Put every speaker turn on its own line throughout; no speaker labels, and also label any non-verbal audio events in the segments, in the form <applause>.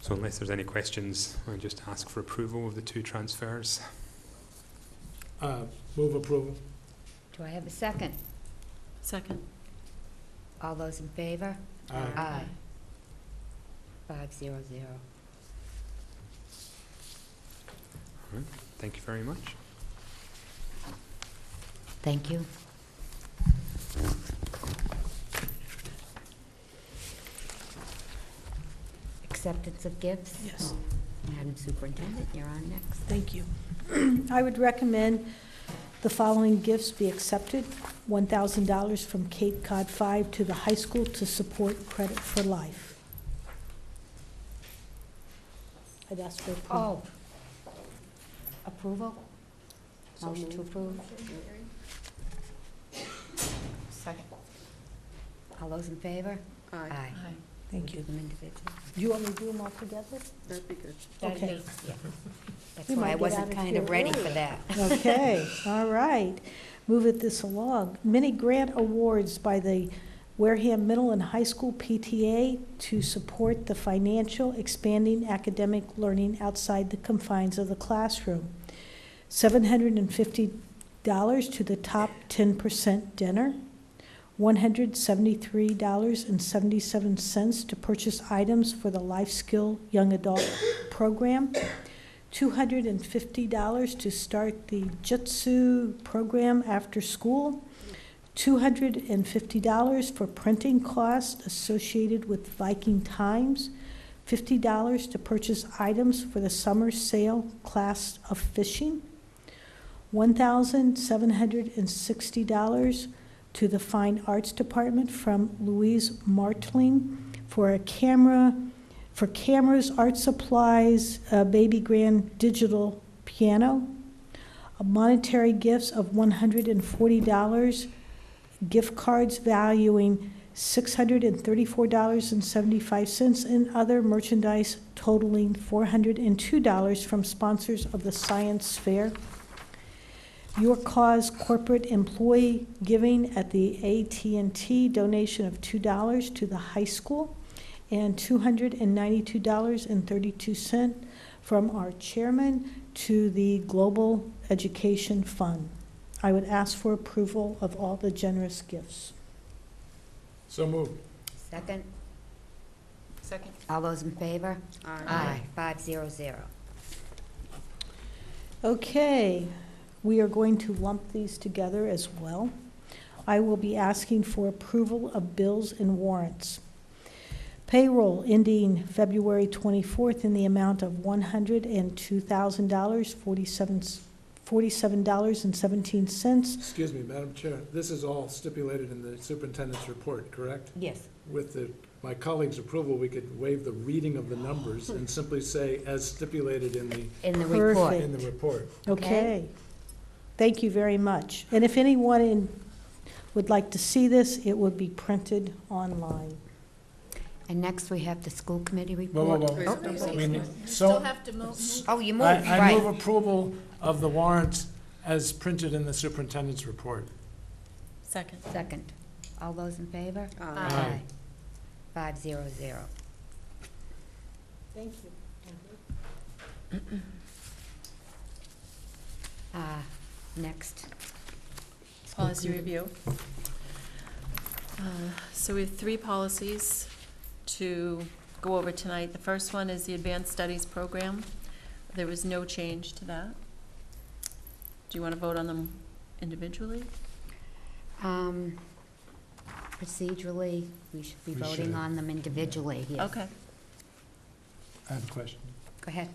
So unless there's any questions, I just ask for approval of the two transfers.
Uh, Move approval.
Do I have a second?
Second.
All those in favor?
Aye.
Aye. Five zero zero.
Thank you very much.
Thank you. Acceptance of gifts?
Yes.
Madam Superintendent, you're on next.
Thank you. <clears throat> I would recommend the following gifts be accepted. $1,000 from Cape Cod 5 to the high school to support Credit for Life. I'd ask for approval.
Oh. Approval? Motion to approve?
Second.
All those in favor? Aye.
Thank
We'll
you.
Do them individually?
Do you want me to do them all together?
That'd be good.
That'd
Okay.
be- yeah. That's
We might
why I
get
wasn't
out of
kind of
here
ready for
early.
that.
Okay, all right. Moving this along. Many grant awards by the Wareham Middle and High School PTA to support the financial expanding academic learning outside the confines of the classroom. Seven hundred and fifty dollars to the top ten percent dinner. One hundred seventy-three dollars and seventy-seven cents to purchase items for the Life Skill Young Adult Program. $250 to start the Jitsu program after school, $250 for printing costs associated with Viking Times, $50 to purchase items for the summer sale class of fishing, $1,760 to the Fine Arts Department from Louise Martling for a camera, for cameras, art supplies, a baby grand digital piano, a monetary gifts of $140, gift cards valuing $634.75, and other merchandise totaling $402 from sponsors of the science fair. Your Cause Corporate Employee Giving at the at and T donation of $2 to the high school and $292.32 from our chairman to the Global Education Fund. I would ask for approval of all the generous gifts.
So moved.
Second?
Second.
All those in favor?
Aye.
Five zero zero.
Okay, we are going to lump these together as well. I will be asking for approval of bills and warrants. Payroll ending February 24th in the amount of $102,000, 47 $47.17.
Excuse me, Madam Chair, this is all stipulated in the superintendent's report, correct?
Yes.
With the, my colleague's approval, we could waive the reading of the numbers and simply say, as stipulated in the,
In the report.
in the report.
Okay.
Okay. Thank you very much. And if anyone in- would like to see this, it would be printed online.
And next, we have the school committee
Whoa,
report.
whoa,
Oh,
whoa.
no.
We need-
Still
So,
have to move.
s-
Oh, you moved,
I, I move
right.
approval of the warrants as printed in the superintendent's report.
Second.
Second. All those in favor?
Aye.
Five zero zero.
Thank you.
Uh, Next. School
Policy
committee.
review. Uh, So we have three policies to go over tonight. The first one is the Advanced Studies Program. There was no change to that. Do you want to vote on them individually?
Um, Procedurally, we should be
We
voting
should.
on them individually here.
Okay.
I have a question.
Go ahead.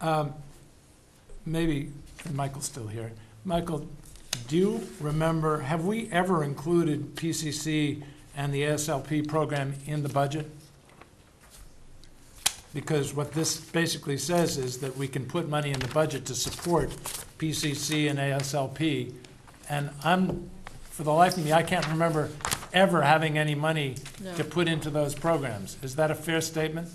Um, Maybe, and Michael's still here. Michael, do you remember, have we ever included PCC and the ASLP program in the budget? Because what this basically says is that we can put money in the budget to support PCC and ASLP. And I'm, for the life of me, I can't remember ever having any money
No.
to put into those programs. Is that a fair statement?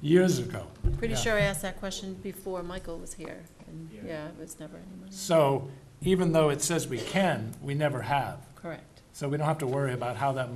Years ago.
Pretty
Yeah.
sure I asked that question before Michael was here, and yeah, it was never any money.
So even though it says we can, we never have.
Correct.
So we don't have to worry about how that